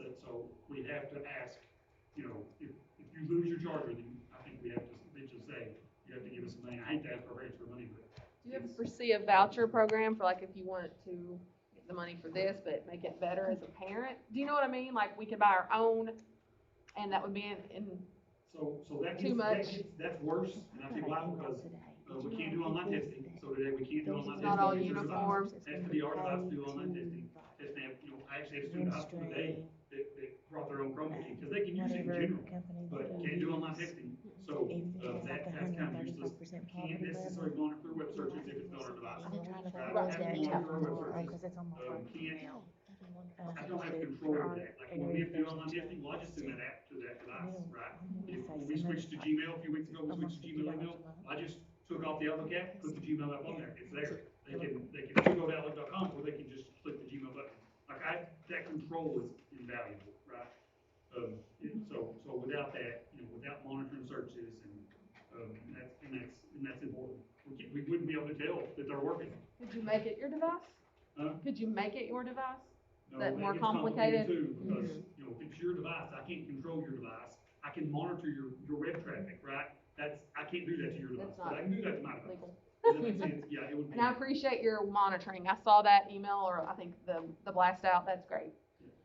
it, so we'd have to ask, you know, if, if you lose your charger, then I think we have to, they just say, you have to give us money, I hate to ask for rates for money, but Do you ever foresee a voucher program for like if you wanted to get the money for this, but make it better as a parent? Do you know what I mean? Like we could buy our own and that would be in, in, So, so that Too gets, that much. gets, that's worse, and I think why, because, uh, we can't do online testing, so today we can't do online testing. Not all because there's a lot uniform. Has to be our lives do online testing, That they have, you know, I actually have students out today that, that brought their own Chromebook in, because they can use it in general, but can't do online testing, so, uh, that, that's kind of useless. Can't necessarily monitor their web searches if it's not our device. I'm trying to Right, figure out have that to out monitor our web more, searches. because it's on my Um, phone. can't, now. I don't have control over that, like, when we have to do online testing, well, I just send that app to that device, right? If, when we switched to Gmail a few weeks ago, we switched to Gmail email, I just took off the Outlook app, put the Gmail app on there, it's there. They can, they can still go to outlook.com, or they can just click the Gmail button. Like I, that control is invaluable, right? Um, and so, so without that, you know, without monitoring searches and, um, and that's, and that's, and that's important. We, can't- we wouldn't be able to tell that they're working. could you make it your device? Huh? Could you make it your device? No, That more gets complicated? Mm-hmm. Too, because, you know, if it's your device, I can't control your device. I can monitor your, your web traffic, right? That's, I can't do that to your device, That's but not I can do that to my device. Legal. Does that make sense? Yeah, it would be. And I appreciate your monitoring. I saw that email or I think the, the blast out. That's great.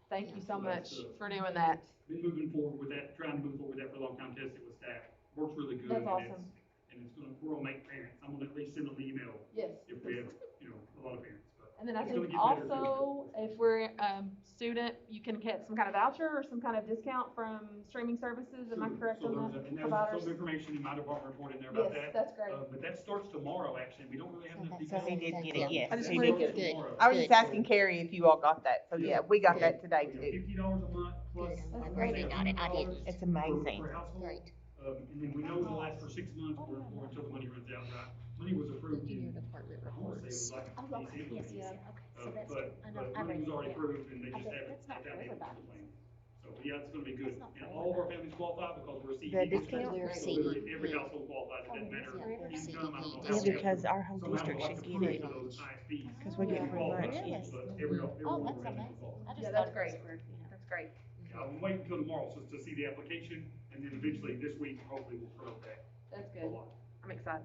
Thank you so much for doing that. Been moving forward with that, trying to move forward with that for a long time, tested with staff, works really good. That's and awesome. it's- And it's gonna, we're gonna make parents, I'm gonna at least send them an email Yes. if we have, you know, a lot of parents, but. And then I It's gonna think get better, too. also, if we're, um, student, you can get some kind of voucher or some kind of discount from streaming services, am I Sure. correct So on there's a- that? And there's Providers? some information in my department report in there Yes, about that. that's great. Uh, but that starts tomorrow, actually, we don't really have enough So that's- details. He did get it, yes. I just he wanted did to get get- it. tomorrow. I was just asking Carrie if you all got that, so yeah, we got that today We have too. Fifty dollars a month plus. Good. I That's think great. they have Got it. I didn't. $100 It's per- amazing. Per household. Great. Um, and then we know it'll last for six months or, or until the money runs out, right? Money was approved Look in your in, department I wanna say it reports. was like. Oh, right. December. yes, yes, Yeah. yeah, okay, Uh, so that's, but, I know, but I money was read it, already yeah. approved and they I just bet haven't, that's they haven't not for been everybody. complained. So, yeah, it's gonna be good. That's not And for all of our families qualify because we're a CED. The district. discount? We're a So literally CED, Every yeah. household qualifies, it doesn't matter. Yeah, we're a Income, I don't know how Yeah, CED we have because to- our whole somehow we'll district have should to get prove it. to those ISPs. 'Cause we get Yeah. free Oh, lunch, but yes. every- every Oh, one that's we're gonna amazing. involve. I just Yeah, thought that's it was great. for, you know, That's great. I'm waiting till tomorrow just to see the application, and then eventually this week, hopefully we'll promote that That's a good. lot. I'm excited.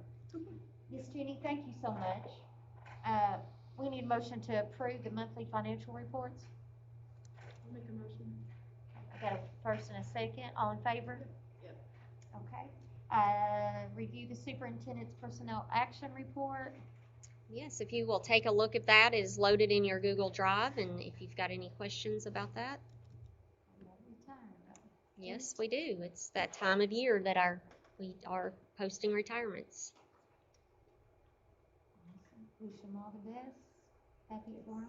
Ms. Judy, thank you so much. Uh, we need a motion to approve the monthly financial reports. I got a first and a second, all in favor? Yep. Okay, uh, review the superintendent's personnel action report. Yes, if you will take a look at that, it is loaded in your Google Drive, and if you've got any questions about that, yes, we do. It's that time of year that our, we are posting retirements. Wish them all the best, happy at Gorham.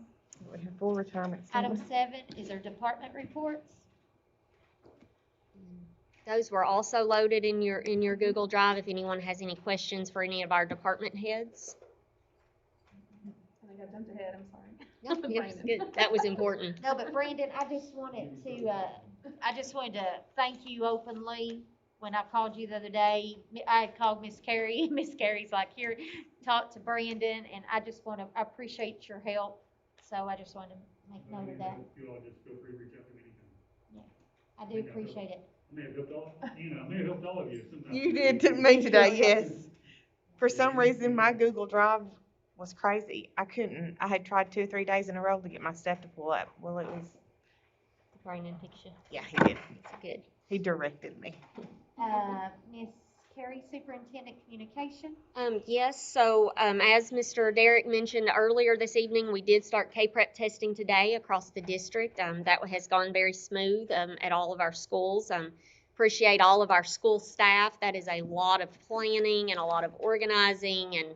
We have full retirement. Item seven is our department reports. Those were also loaded in your, in your Google Drive if anyone has any questions for any of our department heads. I think I jumped ahead, I'm sorry. No, it was good. That was important. No, but Brandon, I just wanted to, uh, I just wanted to thank you openly. When I called you the other day, M- I had called Miss Carrie, and Miss Carrie's like, here, talk to Brandon, and I just want to, I appreciate your help. So I just wanted to make note of that. If you all just feel free to reach out to me anytime. I do appreciate it. I may have helped all, you know, I may have helped all of you sometimes. You did to me today, yes. For some reason, my Google Drive was crazy. I couldn't, I had tried two, three days in a row to get my stuff to pull up. Well, it was, Brandon picture. yeah, he did. It's good. He directed me. Uh, Miss Carrie, Superintendent Communication. Um, yes, so, um, as Mr. Derrick mentioned earlier this evening, we did start K-PREP testing today across the district. Um, that has gone very smooth, um, at all of our schools. Um, appreciate all of our school staff. That is a lot of planning and a lot of organizing and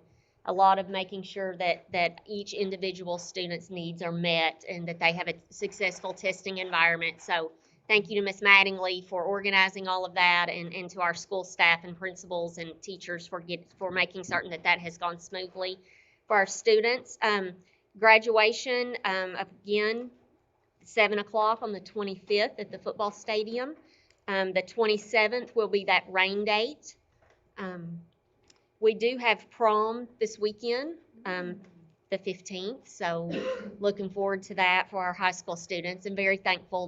a lot of making sure that, that each individual student's needs are met and that they have a successful testing environment. So, thank you to Ms. Mattingly for organizing all of that and, and to our school staff and principals and teachers for get, for making certain that that has gone smoothly for our students. Um, graduation, um, again, seven o'clock on the twenty-fifth at the football stadium. Um, the twenty-seventh will be that rain date. Um, we do have prom this weekend, um, the fifteenth, so looking forward to that for our high school students and very thankful